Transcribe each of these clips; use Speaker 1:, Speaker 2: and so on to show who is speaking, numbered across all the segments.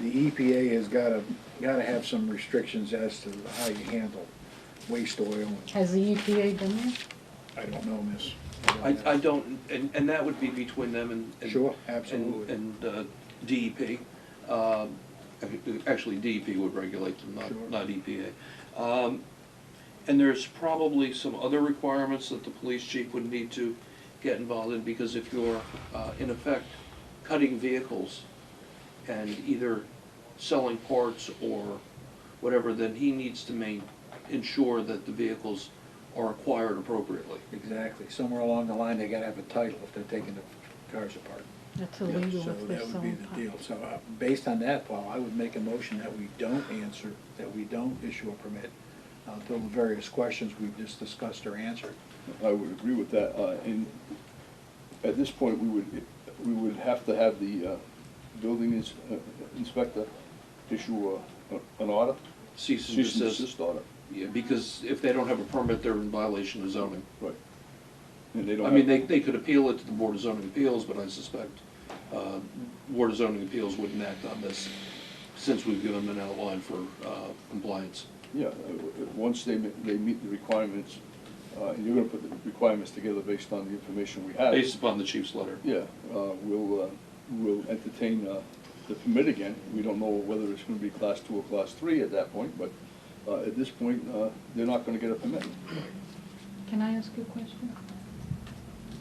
Speaker 1: the EPA has gotta, gotta have some restrictions as to how you handle waste oil.
Speaker 2: Has the E EPA done that?
Speaker 1: I don't know, miss.
Speaker 3: I, I don't, and, and that would be between them and. and-
Speaker 1: Sure,
Speaker 3: and-
Speaker 1: absolutely.
Speaker 3: And uh, DEP. Um, Actually, DEP would regulate them,
Speaker 1: Sure.
Speaker 3: not, not EPA. Um, And there's probably some other requirements that the police chief would need to get involved in, because if you're, uh, in effect, cutting vehicles and either selling parts or whatever, then he needs to main, ensure that the vehicles are acquired appropriately.
Speaker 1: Exactly, somewhere along the line, they gotta have a title if they're taking the cars apart.
Speaker 2: That's
Speaker 3: Yeah,
Speaker 2: illegal
Speaker 1: So that
Speaker 2: if they're
Speaker 1: would be
Speaker 2: selling pot.
Speaker 1: the deal. So, uh, based on that, Paul, I would make a motion that we don't answer, that we don't issue a permit uh, until the various questions we've just discussed are answered.
Speaker 4: I would agree with that, uh, and at this point, we would, we would have to have the, uh, building ins- uh, inspector issue a, a- an order.
Speaker 3: Cease and
Speaker 4: Cease and
Speaker 3: desist.
Speaker 4: desist order,
Speaker 3: Yeah, because if they don't have a permit, they're in violation of zoning.
Speaker 4: right. And they don't
Speaker 3: I
Speaker 4: have.
Speaker 3: mean, they, they could appeal it to the Board of Zoning Appeals, but I suspect, uh, Board of Zoning Appeals wouldn't act on this since we've given them an outline for, uh, compliance.
Speaker 4: Yeah, uh, w- uh, once they, ma- they meet the requirements, uh, and you're gonna put the requirements together based on the information we have.
Speaker 3: Based upon the chief's letter.
Speaker 4: Yeah, uh, we'll, uh, we'll entertain uh, the permit again. We don't know whether it's gonna be class two or class three at that point, but uh, at this point, uh, they're not gonna get a permit.
Speaker 2: Can I ask you a question?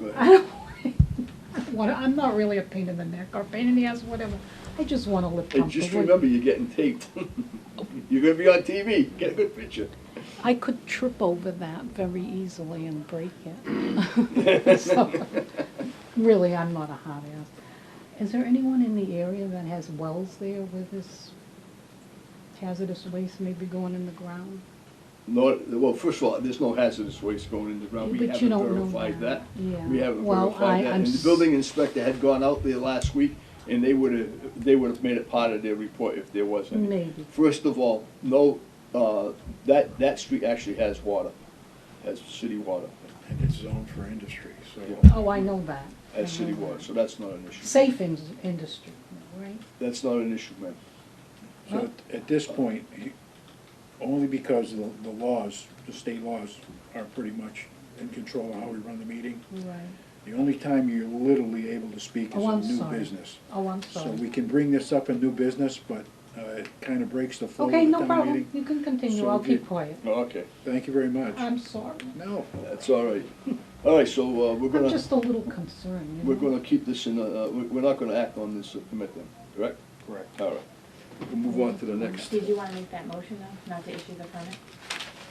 Speaker 4: Go
Speaker 2: I
Speaker 4: ahead.
Speaker 2: don't want, I'm not really a pain in the neck or pain in the ass, whatever. I just want a lip
Speaker 4: Hey,
Speaker 2: pump.
Speaker 4: just
Speaker 2: the way-
Speaker 4: remember, you're getting taped. You're gonna be on TV, get a good picture.
Speaker 2: I could trip over that very easily and break it. So, Really, I'm not a hot ass. Is there anyone in the area that has wells there where this hazardous waste may be going in the ground?
Speaker 4: No, well, first of all, there's no hazardous waste going in the ground. We
Speaker 2: But you
Speaker 4: haven't
Speaker 2: don't know
Speaker 4: verified that.
Speaker 2: that. Yeah.
Speaker 4: We haven't
Speaker 2: Well, I-
Speaker 4: verified that.
Speaker 2: I'm
Speaker 4: And the
Speaker 2: s-
Speaker 4: building inspector had gone out there last week, and they would've, they would've made it part of their report if there was any.
Speaker 2: Maybe.
Speaker 4: First of all, no, uh, that, that street actually has water, has city water,
Speaker 1: And it's zoned for industry, so.
Speaker 4: Yeah.
Speaker 2: Oh, I know that. I know
Speaker 4: has city
Speaker 2: that.
Speaker 4: water, so that's not an issue.
Speaker 2: Safe in- industry, right?
Speaker 4: That's not an issue, man.
Speaker 1: So at- at this point, he- only because the, the laws, the state laws are pretty much in control of how we run the meeting.
Speaker 2: Right.
Speaker 1: The only time you're literally able to speak is
Speaker 2: Oh, I'm
Speaker 1: in new
Speaker 2: sorry.
Speaker 1: business.
Speaker 2: Oh, I'm
Speaker 1: So we
Speaker 2: sorry.
Speaker 1: can bring this up in new business, but uh, it kind of breaks the flow of the
Speaker 2: Okay, no
Speaker 1: town
Speaker 2: problem.
Speaker 1: meeting.
Speaker 2: You can continue.
Speaker 1: So
Speaker 2: I'll
Speaker 1: we
Speaker 2: keep
Speaker 1: did-
Speaker 2: quiet.
Speaker 4: Oh, Okay,
Speaker 1: Thank you very much.
Speaker 2: I'm sorry.
Speaker 1: No,
Speaker 4: that's all right. All right, so, uh, we're
Speaker 2: I'm
Speaker 4: gonna,
Speaker 2: just a little concerned, you
Speaker 4: we're
Speaker 2: know?
Speaker 4: gonna keep this in, uh, uh, we- we're not gonna act on this uh, permit then, correct?
Speaker 1: correct.
Speaker 4: All right.
Speaker 1: We'll move on to the next.
Speaker 5: Did you wanna make that motion though, not to issue the permit?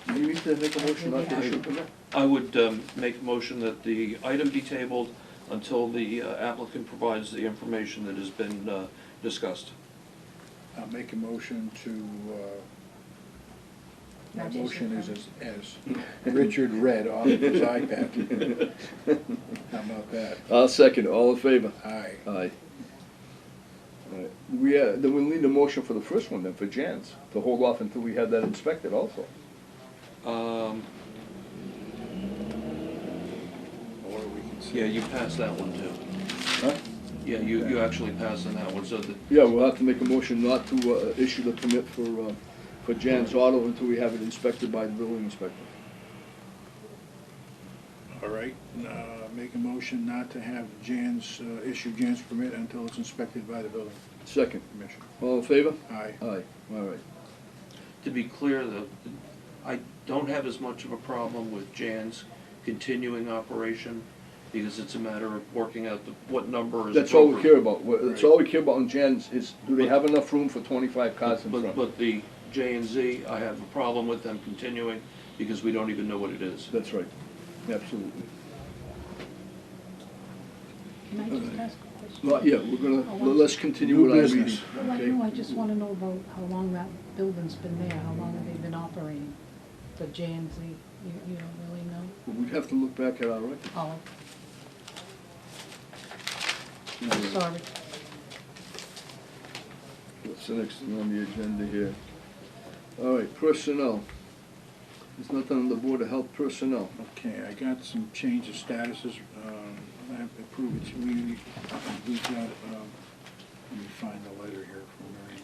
Speaker 4: Do you need to make a motion on
Speaker 5: Yeah.
Speaker 4: the issue permit?
Speaker 3: I would, um, make a motion that the item be tabled until the uh, applicant provides the information that has been, uh, discussed.
Speaker 1: I'll make a motion to, uh, my
Speaker 5: Not to issue
Speaker 1: motion is
Speaker 5: the
Speaker 1: as, as Richard read off of his iPad. How about that?
Speaker 4: I'll second, all in favor?
Speaker 1: Aye.
Speaker 4: Aye. We, uh, then we'll need a motion for the first one then, for Jan's, to hold off until we have that inspected also.
Speaker 3: Um,
Speaker 1: Or we can
Speaker 3: yeah, you passed that one too.
Speaker 4: Huh?
Speaker 3: Yeah, you, you actually passed on that one, so that
Speaker 4: Yeah, we'll have to make a motion not to uh, issue the permit for, uh, for Jan's Auto until we have it inspected by the building inspector.
Speaker 1: All right, uh, make a motion not to have Jan's, uh, issue Jan's permit until it's inspected by the building
Speaker 4: Second,
Speaker 1: commissioner.
Speaker 4: all in favor?
Speaker 1: Aye.
Speaker 4: Aye, all right.
Speaker 3: To be clear, though, I don't have as much of a problem with Jan's continuing operation, because it's a matter of working out the- what number is.
Speaker 4: That's all we care
Speaker 3: appropriate.
Speaker 4: about, We're- that's all we care about in Jan's is, do they have enough room for twenty-five cars in
Speaker 3: But,
Speaker 4: front?
Speaker 3: but the J and Z, I have a problem with them continuing, because we don't even know what it is.
Speaker 4: That's right, absolutely.
Speaker 2: Can I just ask a question?
Speaker 4: Well, yeah, we're
Speaker 2: Oh,
Speaker 4: gonna,
Speaker 2: one-
Speaker 4: let's continue
Speaker 1: New
Speaker 4: with our meeting.
Speaker 1: business.
Speaker 2: Well, I
Speaker 4: okay?
Speaker 2: know, I just wanna know about how long that building's been there, how long have they been operating? The J and Z, you, you don't really know?
Speaker 4: We'd have to look back at our record.
Speaker 2: Oh, I'm sorry.
Speaker 4: What's the next thing on the agenda here? All right, personnel. There's nothing on the Board of Health personnel.
Speaker 1: Okay, I got some change of statuses, um, I have to prove it to you, we've got, um, let me find the